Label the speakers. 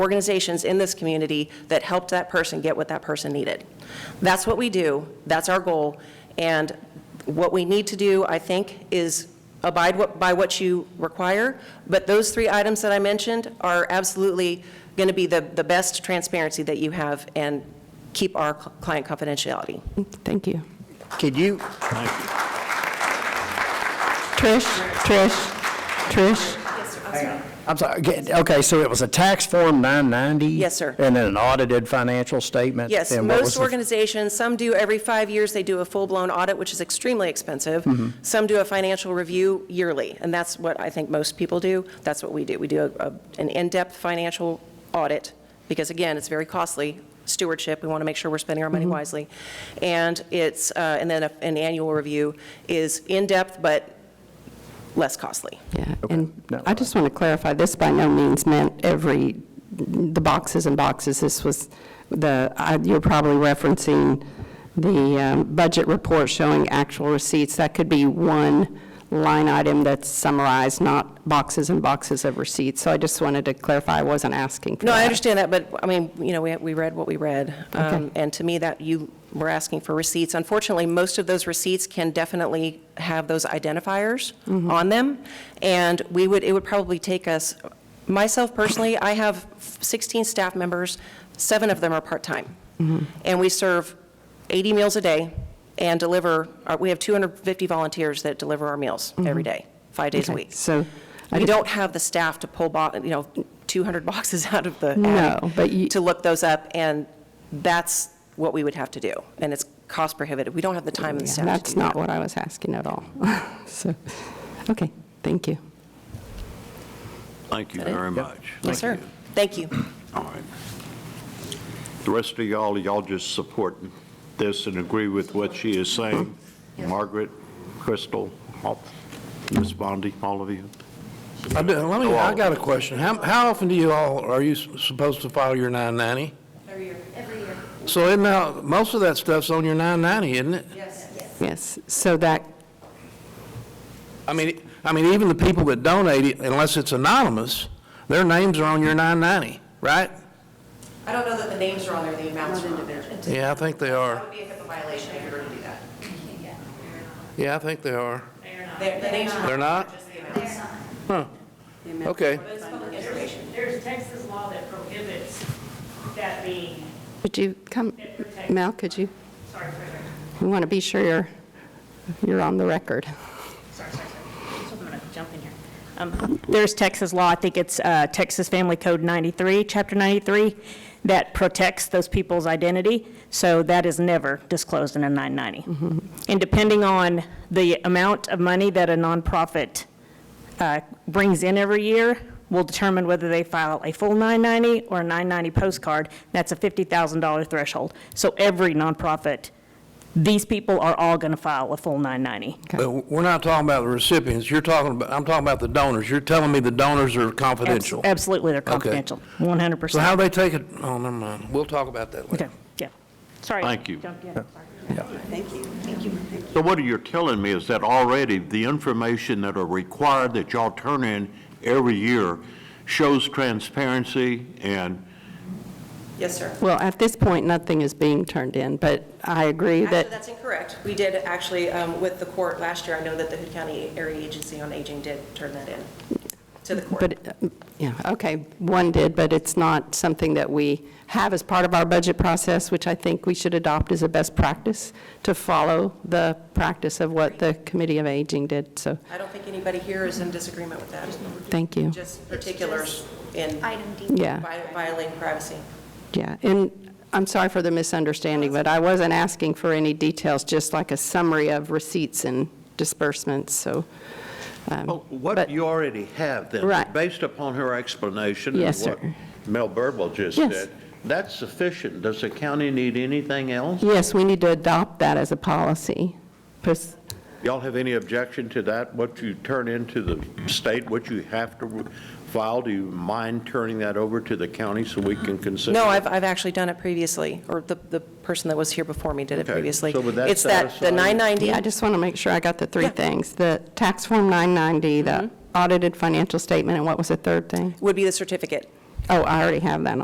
Speaker 1: organizations in this community that helped that person get what that person needed. That's what we do, that's our goal, and what we need to do, I think, is abide what- by what you require, but those three items that I mentioned are absolutely going to be the, the best transparency that you have and keep our client confidentiality.
Speaker 2: Thank you.
Speaker 3: Could you,
Speaker 2: Trish, Trish, Trish,
Speaker 3: I'm sorry, okay, okay, so it was a tax form 990?
Speaker 1: Yes, sir.
Speaker 3: And then an audited financial statement?
Speaker 1: Yes,
Speaker 3: and what was
Speaker 1: most
Speaker 3: the-
Speaker 1: organizations, some do every five years, they do a full-blown audit, which is extremely expensive.
Speaker 3: Mm-hmm.
Speaker 1: Some do a financial review yearly, and that's what I think most people do. That's what we do. We do a- a- an in-depth financial audit, because again, it's very costly stewardship. We want to make sure we're spending our money
Speaker 3: Mm-hmm.
Speaker 1: wisely. And it's, uh, and then a- an annual review is in-depth, but less costly.
Speaker 2: yeah. And
Speaker 3: no.
Speaker 2: I just want to clarify, this by no means meant every, the boxes and boxes. This was the, I- you're probably referencing the um, budget report showing actual receipts. That could be one line item that's summarized, not boxes and boxes of receipts. So I just wanted to clarify, I wasn't asking for
Speaker 1: No, I
Speaker 2: that.
Speaker 1: understand that, but, I mean, you know, we, we read what we read. Um,
Speaker 2: Okay.
Speaker 1: And to me, that you were asking for receipts. Unfortunately, most of those receipts can definitely have those identifiers
Speaker 2: Mm-hmm.
Speaker 1: on them. And we would, it would probably take us, myself personally, I have 16 staff members, seven of them are part-time.
Speaker 2: Mm-hmm.
Speaker 1: And we serve 80 meals a day and deliver, uh, we have 250 volunteers that deliver our meals every day, five days a
Speaker 2: Mm-hmm. Okay,
Speaker 1: week.
Speaker 2: So. I
Speaker 1: We
Speaker 2: just-
Speaker 1: don't have the staff to pull, bo- you know, 200 boxes out of the
Speaker 2: No,
Speaker 1: attic
Speaker 2: but you-
Speaker 1: to look those up, and that's what we would have to do, and it's cost prohibitive. We don't have the time and the
Speaker 2: Oh, Yeah,
Speaker 1: staff to
Speaker 2: That's
Speaker 1: do
Speaker 2: not
Speaker 1: that.
Speaker 2: what I was asking at all. So, okay, thank you.
Speaker 4: Thank you very much.
Speaker 1: Yes, sir.
Speaker 4: Thank you.
Speaker 1: Thank you.
Speaker 4: All right. The rest of y'all, y'all just support this and agree with what she is saying? Margaret, Crystal, all- Ms. Bondi, all of you?
Speaker 5: I do, let me, I got a question. How, how often do you all, are you s- supposed to file your 990?
Speaker 6: Every year. Every year.
Speaker 5: So it now, most of that stuff's on your 990, isn't it?
Speaker 6: Yes.
Speaker 2: Yes, so that,
Speaker 5: I mean, I mean, even the people that donate, it, unless it's anonymous, their names are on your 990, right?
Speaker 1: I don't know that the names are on there, the amounts are on there.
Speaker 5: Yeah, I think they are.
Speaker 1: would be a HIPAA violation if we were to do that.
Speaker 5: Yeah, I think they are.
Speaker 1: The names
Speaker 5: They're not? Huh. Okay.
Speaker 7: There's Texas law that prohibits that being,
Speaker 2: could you come, Mel, could you,
Speaker 7: sorry, sorry, sorry,
Speaker 2: we want to be sure you're, you're on the record.
Speaker 7: sorry, sorry, sorry. I'm going to jump in here. Um, There's Texas law, I think it's uh, Texas Family Code 93, Chapter 93, that protects those people's identity, so that is never disclosed in a 990. And depending on the amount of money that a nonprofit uh, brings in every year will determine whether they file a full 990 or a 990 postcard. That's a $50,000 threshold. So every nonprofit, these people are all going to file a full 990.
Speaker 5: But we're not talking about the recipients, you're talking about, I'm talking about the donors. You're telling me the donors are
Speaker 7: Abs-
Speaker 5: confidential.
Speaker 7: Absolutely, they're confidential, 100%.
Speaker 5: So how they take it, oh, never mind, we'll talk about that later.
Speaker 7: Okay, yeah. Sorry.
Speaker 4: Thank you.
Speaker 7: Jumped in, sorry.
Speaker 4: So what you're telling me is that already the information that are required that y'all turn in every year shows transparency and,
Speaker 1: Yes, sir.
Speaker 2: Well, at this point, nothing is being turned in, but I agree
Speaker 1: Actually,
Speaker 2: that,
Speaker 1: that's incorrect. We did actually, um, with the court last year, I know that the Hood County Area Agency on Aging did turn that in to the court.
Speaker 2: but, uh, yeah, okay, one did, but it's not something that we have as part of our budget process, which I think we should adopt as a best practice to follow the practice of what the Committee of Aging did, so,
Speaker 1: I don't think anybody here is in disagreement with that,
Speaker 2: thank you.
Speaker 1: just particulars in
Speaker 6: Item D.
Speaker 2: Yeah.
Speaker 1: vi- violating privacy.
Speaker 2: Yeah, and I'm sorry for the misunderstanding, but I wasn't asking for any details, just like a summary of receipts and disbursements, so, um,
Speaker 8: Well, What
Speaker 2: but-
Speaker 8: you already have then,
Speaker 2: Right.
Speaker 8: based upon her explanation and
Speaker 2: Yes,
Speaker 8: what
Speaker 2: sir.
Speaker 8: Mel Birdwell just
Speaker 2: Yes.
Speaker 8: did, that's sufficient. Does the county need anything else?
Speaker 2: yes, we need to adopt that as a policy. Pers-
Speaker 8: Y'all have any objection to that? What you turn into the state, what you have to file, do you mind turning that over to the county so we can consider?
Speaker 1: No,
Speaker 8: it?
Speaker 1: I've, I've actually done it previously, or the, the person that was here before me did it
Speaker 8: Okay,
Speaker 1: previously.
Speaker 8: so would that
Speaker 1: It's that,
Speaker 8: satisfy
Speaker 1: the
Speaker 8: you?
Speaker 1: 990.
Speaker 2: Yeah, I just want to make sure I got the three
Speaker 1: Yeah.
Speaker 2: things, the tax form 990, the audited financial statement, and what was the third thing?
Speaker 1: would be the certificate.
Speaker 2: Oh, I already have that on.